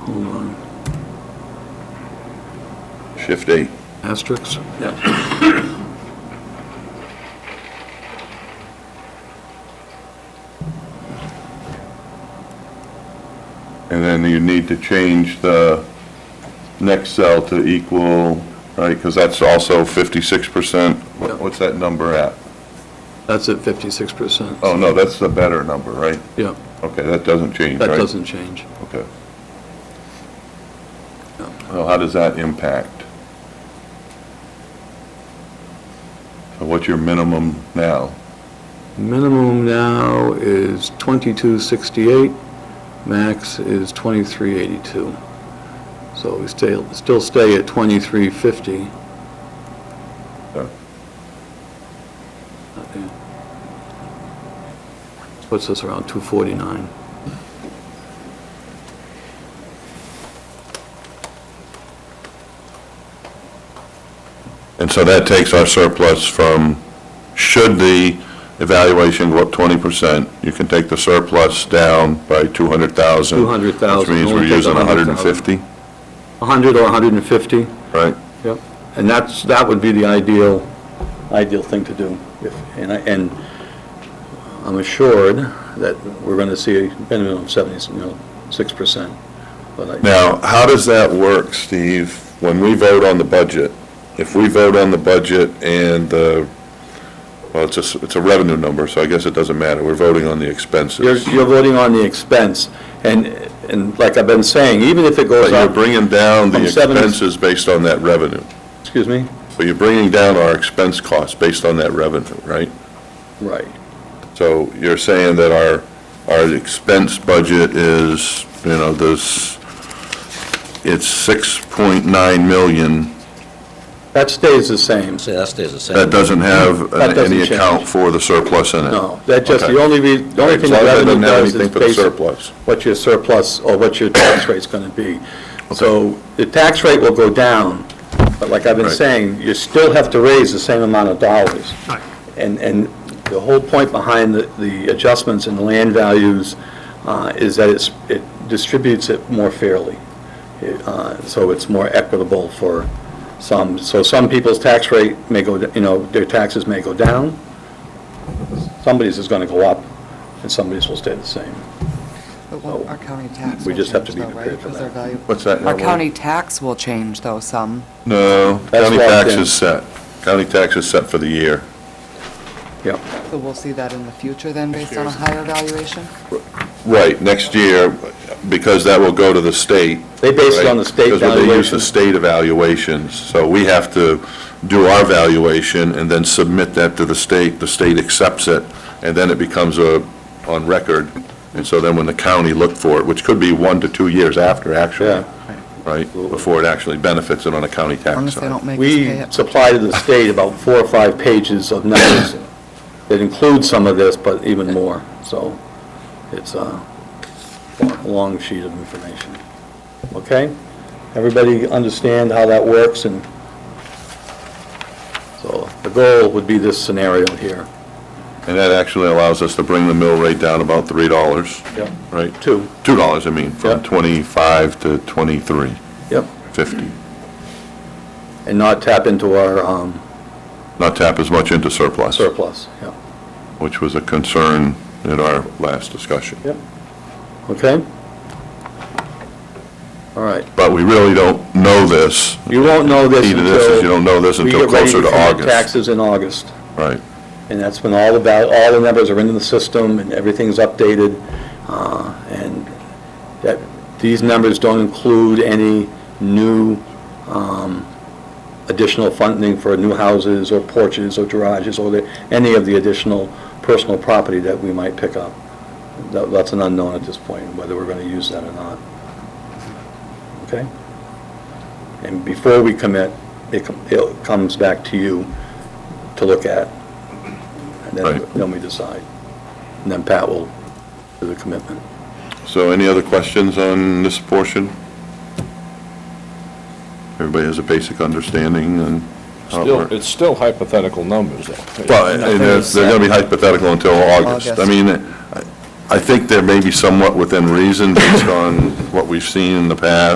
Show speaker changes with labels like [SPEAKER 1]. [SPEAKER 1] Hold on.
[SPEAKER 2] Shift A.
[SPEAKER 1] Asterisks? Yeah.
[SPEAKER 2] And then you need to change the next cell to equal, right, because that's also 56%.
[SPEAKER 1] Yep.
[SPEAKER 2] What- What's that number at?
[SPEAKER 1] That's at 56%.
[SPEAKER 2] Oh, no, that's the better number, right?
[SPEAKER 1] Yeah,
[SPEAKER 2] Okay, that doesn't change,
[SPEAKER 1] that
[SPEAKER 2] right?
[SPEAKER 1] doesn't change.
[SPEAKER 2] Okay.
[SPEAKER 1] No.
[SPEAKER 2] Well, how does that impact? So what's your minimum now?
[SPEAKER 1] Minimum now is 2268, max is 2382. So we stay, still stay at 2350.
[SPEAKER 2] Yeah.
[SPEAKER 1] Puts us around 249.
[SPEAKER 2] And so that takes our surplus from, should the evaluation go up 20%, you can take the surplus down by 200,000.
[SPEAKER 1] 200,000,
[SPEAKER 2] Which means we're
[SPEAKER 1] only take
[SPEAKER 2] using
[SPEAKER 1] 100,000.
[SPEAKER 2] 150,
[SPEAKER 1] 100 or 150?
[SPEAKER 2] right?
[SPEAKER 1] Yep. And that's, that would be the ideal, ideal thing to do. If And I, and I'm assured that we're going to see a minimum of 70, you know, 6%. But I-
[SPEAKER 2] Now, how does that work, Steve, when we vote on the budget? If we vote on the budget and the, well, it's a, s- it's a revenue number, so I guess it doesn't matter, we're voting on the
[SPEAKER 1] You're,
[SPEAKER 2] expenses.
[SPEAKER 1] you're voting on the expense, and, and like I've been saying, even if it
[SPEAKER 2] But
[SPEAKER 1] goes
[SPEAKER 2] you're
[SPEAKER 1] up,
[SPEAKER 2] bringing down the
[SPEAKER 1] From seven-
[SPEAKER 2] expenses based on that revenue.
[SPEAKER 1] excuse me?
[SPEAKER 2] So you're bringing down our expense costs based on that revenue, right?
[SPEAKER 1] Right.
[SPEAKER 2] So you're saying that our, our expense budget is, you know, this, it's 6.9 million.
[SPEAKER 1] That stays the same.
[SPEAKER 3] See, that stays the same.
[SPEAKER 2] That doesn't have
[SPEAKER 1] That doesn't
[SPEAKER 2] any
[SPEAKER 1] change.
[SPEAKER 2] account for the surplus in it.
[SPEAKER 1] No, that just,
[SPEAKER 2] Okay.
[SPEAKER 1] the only, re- the only
[SPEAKER 2] Right,
[SPEAKER 1] thing the
[SPEAKER 2] As long as it
[SPEAKER 1] revenue
[SPEAKER 2] doesn't have
[SPEAKER 1] does is
[SPEAKER 2] anything for the
[SPEAKER 1] based on
[SPEAKER 2] surplus.
[SPEAKER 1] what your surplus or what your tax rate's going to be. So the tax rate will go down, but like I've been
[SPEAKER 2] Right.
[SPEAKER 1] saying, you still have to raise the same amount of dollars.
[SPEAKER 4] Right.
[SPEAKER 1] And, and the whole point behind the, the adjustments in land values uh, is that it's, it distributes it more fairly. It, uh, So it's more equitable for some, so some people's tax rate may go, you know, their taxes may go down, somebody's is going to go up, and somebody's will stay the same.
[SPEAKER 5] But won't our county tax
[SPEAKER 1] We
[SPEAKER 5] will
[SPEAKER 1] just have
[SPEAKER 5] change
[SPEAKER 1] to be
[SPEAKER 5] though, right?
[SPEAKER 1] prepared for
[SPEAKER 5] 'Cause their
[SPEAKER 1] that.
[SPEAKER 5] value-
[SPEAKER 2] What's that?
[SPEAKER 5] Our
[SPEAKER 2] Howard?
[SPEAKER 5] county tax will change though some.
[SPEAKER 2] No, county
[SPEAKER 1] locked
[SPEAKER 2] tax
[SPEAKER 1] in.
[SPEAKER 2] is set. County tax is set for the year.
[SPEAKER 1] Yep.
[SPEAKER 5] So we'll see that in the future then based on a higher valuation?
[SPEAKER 2] Right, next year, because that will go to the state.
[SPEAKER 1] They base it on the
[SPEAKER 2] right?
[SPEAKER 1] state
[SPEAKER 2] Because they use
[SPEAKER 1] valuation.
[SPEAKER 2] the state evaluations, so we have to do our valuation and then submit that to the state, the state accepts it, and then it becomes a, on record, and so then when the county looked for it, which could be one to two years after,
[SPEAKER 1] Yeah.
[SPEAKER 2] actually, right, before it actually benefits it on a county
[SPEAKER 5] As long
[SPEAKER 2] tax
[SPEAKER 5] as they
[SPEAKER 2] side.
[SPEAKER 5] don't make us pay
[SPEAKER 1] We
[SPEAKER 5] it.
[SPEAKER 1] supply to the state about four or five pages of numbers that include some of this, but even more, so it's a long sheet of information. Okay? Everybody understand how that works and so the goal would be this scenario here.
[SPEAKER 2] And that actually allows us to bring the mill rate down about three dollars,
[SPEAKER 1] Yep.
[SPEAKER 2] right?
[SPEAKER 1] Two.
[SPEAKER 2] Two dollars, I mean, from
[SPEAKER 1] Yeah.
[SPEAKER 2] twenty-five to twenty-three
[SPEAKER 1] Yep.
[SPEAKER 2] fifty.
[SPEAKER 1] And not tap into our um,
[SPEAKER 2] Not tap as much into surplus.
[SPEAKER 1] surplus, yeah.
[SPEAKER 2] which was a concern in our last discussion.
[SPEAKER 1] Yep. Okay? All right.
[SPEAKER 2] But we really don't know this.
[SPEAKER 1] You won't know this
[SPEAKER 2] Key to
[SPEAKER 1] until...
[SPEAKER 2] this is you don't know this
[SPEAKER 1] we
[SPEAKER 2] until
[SPEAKER 1] get ready
[SPEAKER 2] closer to
[SPEAKER 1] submit
[SPEAKER 2] August.
[SPEAKER 1] Taxes in August,
[SPEAKER 2] Right.
[SPEAKER 1] and that's when all the, val- all the numbers are into the system, and everything's updated, uh, and that, these numbers don't include any new um, additional funding for new houses, or porches, or garages, or the- any of the additional personal property that we might pick up. That- That's an unknown at this point, whether we're going to use that or not. Okay? And before we commit, it com- it comes back to you to look at. And then,
[SPEAKER 2] Right.
[SPEAKER 1] then we decide. And then Pat will do the commitment.
[SPEAKER 2] So any other questions on this portion? Everybody has a basic understanding and how it
[SPEAKER 6] Still,
[SPEAKER 2] works?
[SPEAKER 6] it's still hypothetical numbers, though.
[SPEAKER 2] Well, and they're, they're gonna be hypothetical until August.
[SPEAKER 5] August.
[SPEAKER 2] I mean, I- I think there may be somewhat within reason based on what we've seen in the past